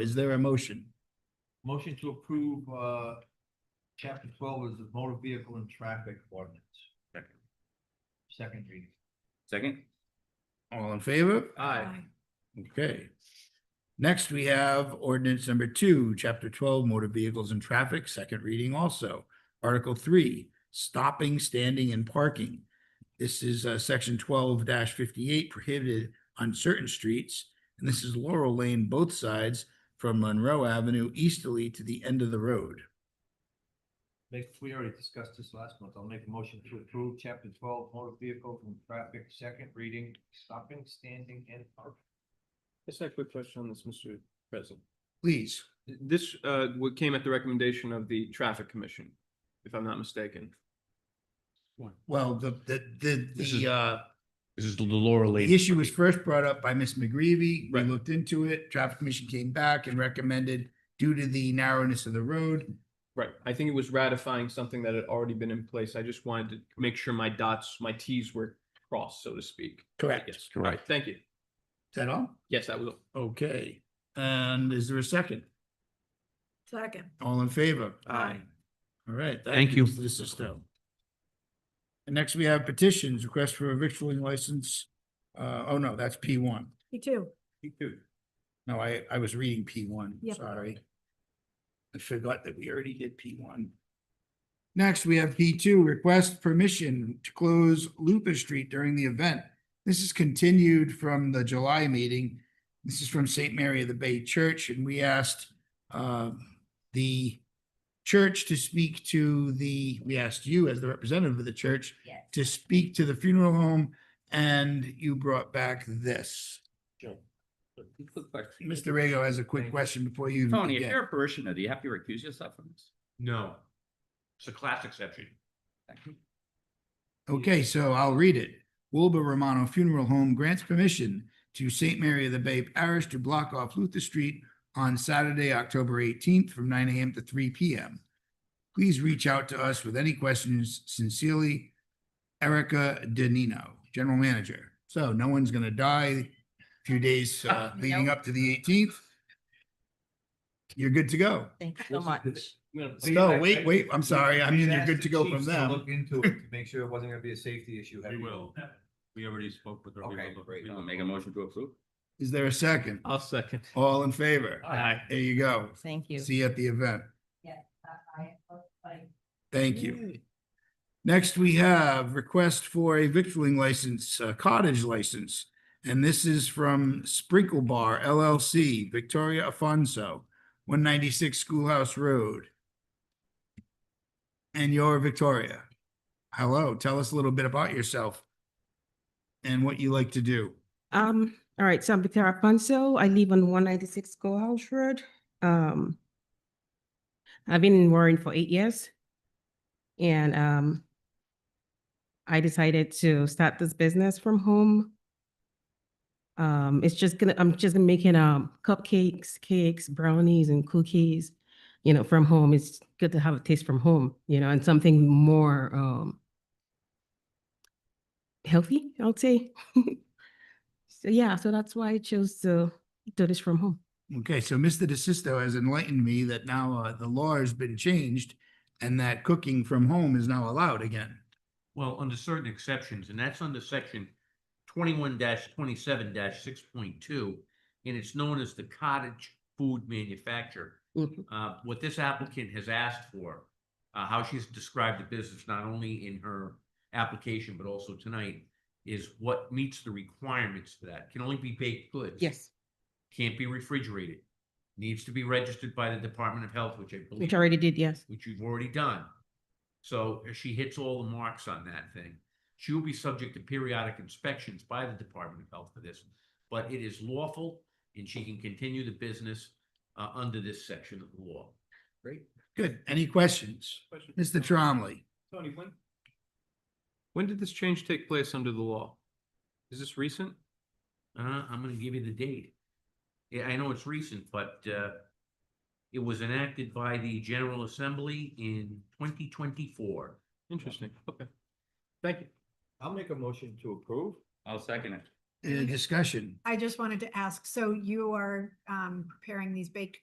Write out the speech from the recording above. Is there a motion? Motion to approve, uh, chapter twelve is the motor vehicle and traffic ordinance. Second. Second reading. Second? All in favor? Aye. Okay. Next, we have ordinance number two, chapter twelve, motor vehicles and traffic, second reading also. Article three, stopping, standing and parking. This is uh section twelve fifty-eight prohibited on certain streets. And this is Laurel Lane, both sides from Monroe Avenue easterly to the end of the road. Make, we already discussed this last month. I'll make a motion to approve chapter twelve, motor vehicle and traffic, second reading, stopping, standing and parking. Just a quick question on this, Mr. President. Please. This, uh, what came at the recommendation of the traffic commission, if I'm not mistaken. Well, the, the, the, This is- the, uh, This is the Laurel Lane. The issue was first brought up by Ms. McGreevy. We Right. looked into it. Traffic Commission came back and recommended due to the narrowness of the road. Right, I think it was ratifying something that had already been in place. I just wanted to make sure my dots, my Ts were crossed, so to speak. Correct. Is Yes, Correct. thank you. that all? Yes, that was, all. Okay. And is there a second? Second. All in favor? Aye. All right. Thank you. This is And next we have petitions, request for a victualling license. Uh, oh no, that's P one. Me too. No, I, I was reading P one, Yep. sorry. I forgot that we already did P one. Next, we have P two, request permission to close Lupus Street during the event. This is continued from the July meeting. This is from Saint Mary of the Bay Church, and we asked uh, the church to speak to the, we asked you as the representative of the church Yes. to speak to the funeral home, and you brought back this. Quick question. Mr. Rego has a quick Thank- question before you. Tony, if begin. you're a parishioner, do you have to recuse yourself from this? No. It's a class exception. Thank you. Okay, so I'll read it. Wilbur Romano Funeral Home grants permission to St. Mary of the Bay Parish to block off Luther Street on Saturday, October eighteenth from nine AM to three PM. Please reach out to us with any questions. Sincerely, Erica Danino, General Manager. So no one's gonna die a few days uh, leading up to the eighteenth. You're good to go. Thank you so much. I'm gonna- No, wait, wait, I'm sorry. I mean, you're good to go We've from asked the them. chiefs to Look into it to make sure it wasn't gonna be a safety issue. Have We you- will. We already spoke with her. We Okay, will- great. we will Make a motion to approve? Is there a second? I'll second. All in favor? Aye. There you go. Thank you. See you at the event. Thank you. Next, we have request for a victualling license, uh, cottage license. And this is from Sprinkle Bar LLC, Victoria Afonso, one ninety-six Schoolhouse Road. And you're Victoria. Hello, tell us a little bit about yourself and what you like to do. Um, all right, so I'm Victoria Ponzo. I live on one ninety-six Schoolhouse Road. Um, I've been in Warren for eight years. And, um, I decided to start this business from home. Um, it's just gonna, I'm just making, um, cupcakes, cakes, brownies and cookies, you know, from home. It's good to have a taste from home, you know, and something more, um, healthy, I would say. So yeah, so that's why I chose to do this from home. Okay, so Mr. DeSisto has enlightened me that now uh, the law has been changed and that cooking from home is now allowed again. Well, under certain exceptions, and that's under section twenty-one twenty-seven six point two, and it's known as the cottage food manufacturer. Mhm. Uh, what this applicant has asked for, uh, how she's described the business, not only in her application, but also tonight, is what meets the requirements for that. Can only be baked goods. Yes, Can't be refrigerated. Needs to be registered by the Department of Health, which I believe. which I already did. Yes. which you've already done. So if she hits all the marks on that thing. She will be subject to periodic inspections by the Department of Health for this, but it is lawful and she can continue the business uh, under this section of the law. Good. Any questions? Mr. Tromley? Tony, when? When did this change take place under the law? Is this recent? Uh, I'm gonna give you the date. Yeah, I know it's recent, but uh, it was enacted by the General Assembly in twenty twenty-four. Interesting, okay. Thank you. I'll make a motion to approve. I'll second it. Any discussion? I just wanted to ask, so you are um preparing these baked